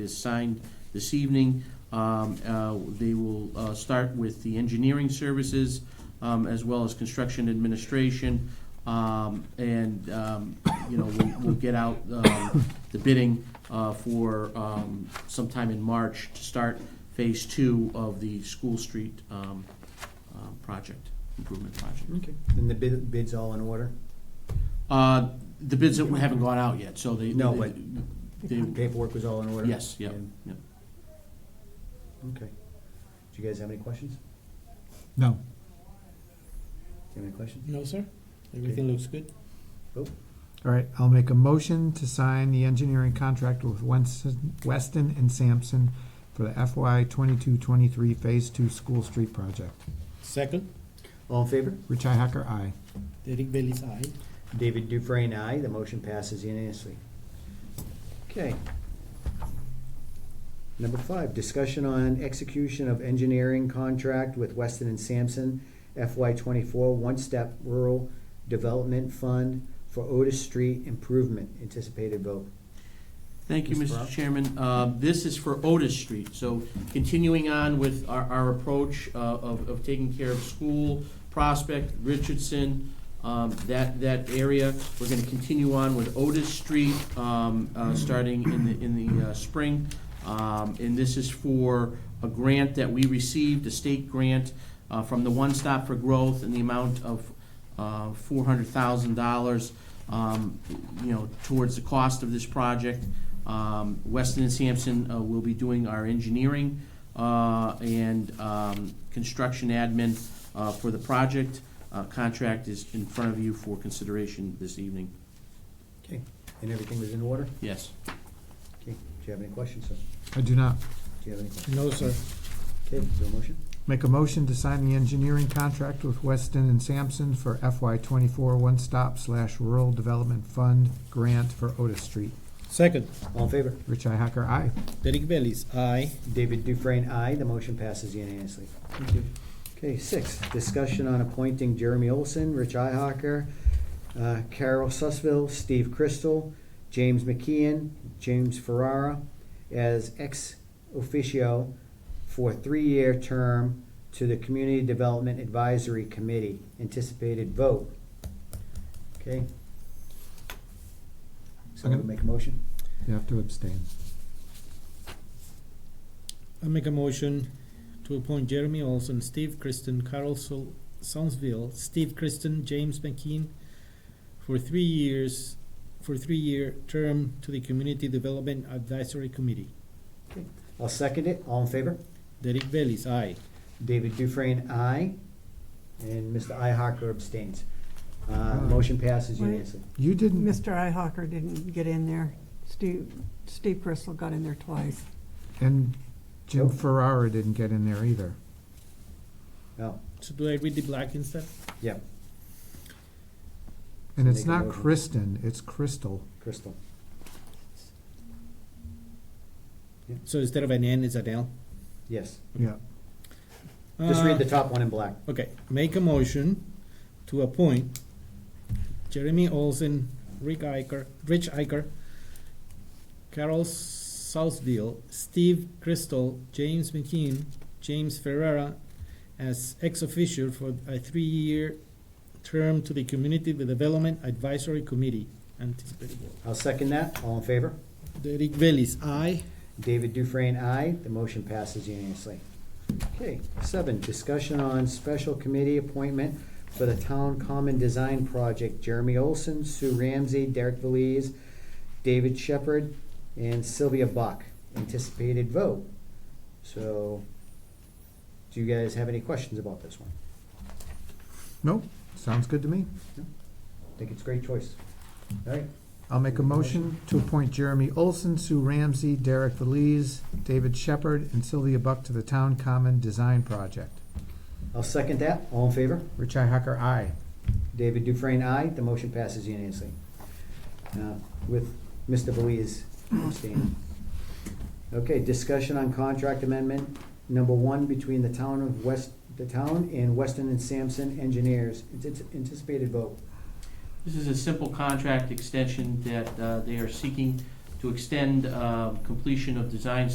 is signed this evening. Um, uh, They will uh, start with the engineering services um, as well as construction administration. Um, And, um, you know, we'll- we'll get out um, the bidding uh, for um, sometime in March to start Phase Two of the School Street um, um, project, improvement project. Okay. And the bid, bid's all in order? Uh, The bids that haven't gone out yet, so they. No, but- they- Paperwork was all in order? Mm-hmm. Yes, yeah, And- yeah. Okay. Do you guys have any questions? No. Do you have any questions? No, sir. Everything looks good. All right, I'll make a motion to sign the engineering contract with Weston Weston and Sampson for the FY twenty-two, twenty-three Phase Two School Street Project. Second, All in favor? Richi Hacker, aye. Derek Bailey's aye. David Dufresne, aye. The motion passes unanimously. Okay. Number five, discussion on execution of engineering contract with Weston and Sampson FY twenty-four One-Step Rural Development Fund for Otis Street Improvement. Anticipated vote. Thank you, Mr. Mr. Brown. Chairman. Uh, This is for Otis Street, so continuing on with our, our approach uh, of, of taking care of School, Prospect, Richardson, um, that, that area. We're gonna continue on with Otis Street, um, uh, starting in the, in the uh, spring. Um, And this is for a grant that we received, a state grant uh, from the One Stop for Growth in the amount of uh, $400,000, um, you know, towards the cost of this project. Um, Weston and Sampson uh, will be doing our engineering uh, and um, construction admin uh, for the project. Uh, Contract is in front of you for consideration this evening. Okay. And everything was in order? Yes. Okay. Do you have any questions, sir? I do not. Do you have any questions? No, sir. Okay, is there a motion? Make a motion to sign the engineering contract with Weston and Sampson for FY twenty-four One Stop slash Rural Development Fund Grant for Otis Street. Second, All in favor? Richi Hacker, aye. Derek Bailey's aye. David Dufresne, aye. The motion passes unanimously. Thank you. Okay, six, discussion on appointing Jeremy Olson, Rich Ihawker, uh, Carol Sussville, Steve Crystal, James McKeon, James Ferrara as ex officio for three-year term to the Community Development Advisory Committee. Anticipated vote. Okay. Someone make a motion? You have to abstain. I make a motion to appoint Jeremy Olson, Steve Kristen, Carl Sol- Sonsville, Steve Kristen, James McKean for three years, for three-year term to the Community Development Advisory Committee. I'll second it. All in favor? Derek Bailey's aye. David Dufresne, aye. And Mr. Ihawker abstains. Uh, Motion passes Wait. unanimously. You didn't. Mr. Ihawker didn't get in there. Steve, Steve Crystal got in there twice. And Oh. Jim Ferrara didn't get in there either. Oh, So do I read the black instead? yeah, And Make it's a not motion. Kristen, it's Crystal. Crystal. So instead of an N, it's an L? Yes. Yeah. Just read Uh, the top one in black. Okay, make a motion to appoint Jeremy Olson, Rick Iker, Rich Iker, Carol Southville, Steve Crystal, James McKean, James Ferrara as ex officio for a three-year term to the Community Development Advisory Committee. Anticipated vote. I'll second that. All in favor? Derek Bailey's aye. David Dufresne, aye. The motion passes unanimously. Okay, seven, discussion on special committee appointment for the Town Common Design Project. Jeremy Olson, Sue Ramsey, Derek Veliz, David Shepherd, and Sylvia Buck. Anticipated vote. So, do you guys have any questions about this one? Nope, sounds good to me. I Think it's a great choice. All right, I'll make a motion to appoint Jeremy Olson, Sue Ramsey, Derek Veliz, David Shepherd, and Sylvia Buck to the Town Common Design Project. I'll second that. All in favor? Richi Hacker, aye. David Dufresne, aye. The motion passes unanimously. Uh, With Mr. Belize abstaining. Okay, discussion on contract amendment number one between the town of West, the town and Weston and Sampson engineers. It's Anticipated vote. This is a simple contract extension that uh, they are seeking to extend uh, completion of design